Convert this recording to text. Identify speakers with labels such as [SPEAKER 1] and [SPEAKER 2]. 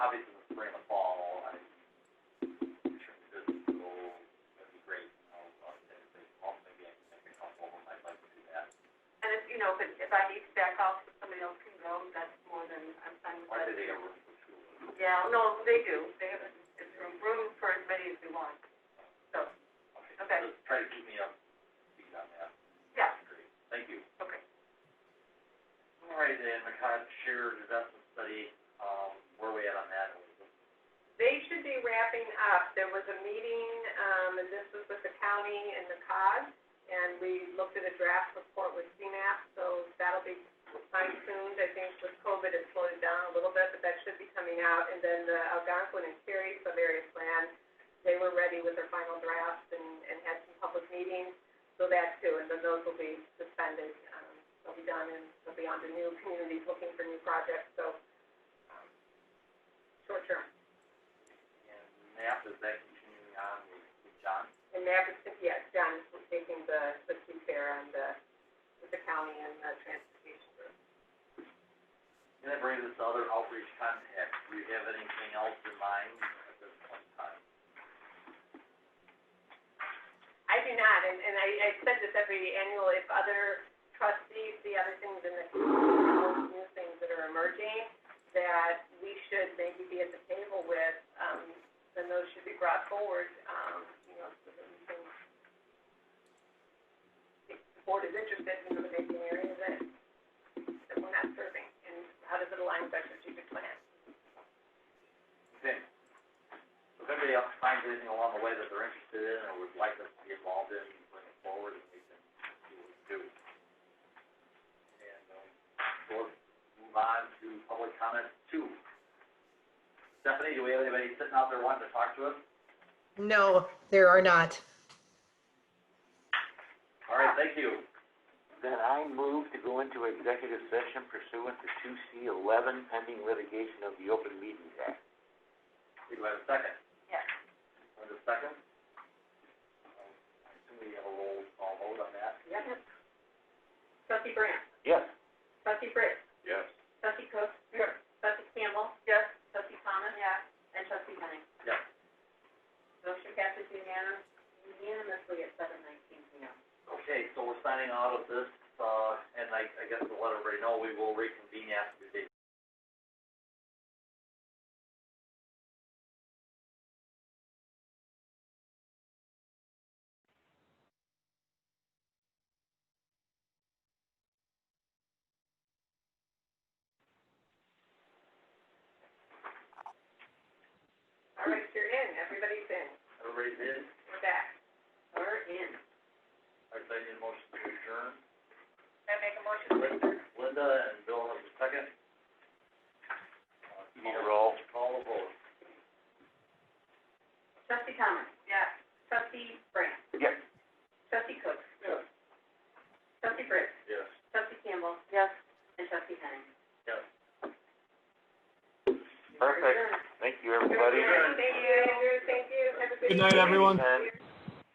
[SPEAKER 1] Yeah, no, they do, they have, it's room, room for as many as we want, so, Okay.
[SPEAKER 2] Just try to keep me up, to speed on that.
[SPEAKER 1] yeah,
[SPEAKER 2] Great. Thank you.
[SPEAKER 1] okay.
[SPEAKER 2] All right, and McCod shared investment study, um, where we at on that?
[SPEAKER 1] They should be wrapping up. There was a meeting, um, and this was with the county and the COG, and we looked at a draft report with CMAP, so that'll be fine tuned. I think with COVID, it slowed it down a little bit, but that should be coming out. And then the Algonquin and Cary Savaria plan, they were ready with their final drafts and, and had some public meetings, so that too. And then those will be suspended. Um, they'll be done and they'll be on to new communities looking for new projects, so, um, short term.
[SPEAKER 2] And NAP, is that continuing on with, with John?
[SPEAKER 1] And that is, yes, John is taking the, the two fair and the, with the county and the transportation group.
[SPEAKER 2] And that brings us to other outreach contacts. Do you have anything else in mind at this point in time?
[SPEAKER 1] I do not, and, and I, I said this every annual, if other trustees see other things in the, community, all these new things that are emerging, that we should maybe be at the table with, um, then those should be brought forward, um, you know, so that we can, if the board is interested in the making areas that, that we're not serving, and how does it align with our strategic plan?
[SPEAKER 2] Okay. So if anybody else finds anything along the way that they're interested in or would like us to be involved in, bring it forward and we can see what we can do. And, um, we'll move on to public comments two. Stephanie, do we have anybody sitting out there wanting to talk to us?
[SPEAKER 3] No, there are not.
[SPEAKER 2] All right, thank you.
[SPEAKER 4] Then I move to go into executive session pursuant to two C eleven pending litigation of the Open Meetings Act.
[SPEAKER 2] We do have a second.
[SPEAKER 1] Yes.
[SPEAKER 2] Want a second? Um, I assume we have a roll call vote on that.
[SPEAKER 1] Yep. Trustee Brandt?
[SPEAKER 4] Yes.
[SPEAKER 1] Trustee Britt?
[SPEAKER 2] Yes.
[SPEAKER 1] Trustee Cook? Yes. Trustee Campbell? Yes. Trustee Thomas? Yes. And Trustee Henning?
[SPEAKER 2] Yes.
[SPEAKER 1] Motion passes unanimous- unanimously at seven nineteen PM.
[SPEAKER 2] Okay, so we're signing out of this, uh, and I, I guess to let everybody know, we will reconvene after the
[SPEAKER 1] All right, you're in, everybody's in,
[SPEAKER 2] Everybody's in?
[SPEAKER 1] we're back. We're in.
[SPEAKER 2] I'd say the motion to adjourn.
[SPEAKER 1] Can I make a motion to adjourn?
[SPEAKER 2] Linda and Bill have a second.
[SPEAKER 4] You need a roll?
[SPEAKER 2] Call the vote.
[SPEAKER 1] Trustee Thomas? Yes. Trustee Brandt?
[SPEAKER 4] Yes.
[SPEAKER 1] Trustee Cook? Yes. Trustee Britt?
[SPEAKER 2] Yes.
[SPEAKER 1] Trustee Campbell? Yes. And Trustee Henning?
[SPEAKER 2] Yes.
[SPEAKER 4] Perfect. Thank you, everybody.
[SPEAKER 1] Thank you, thank you, have a good
[SPEAKER 5] Good night, everyone.
[SPEAKER 4] And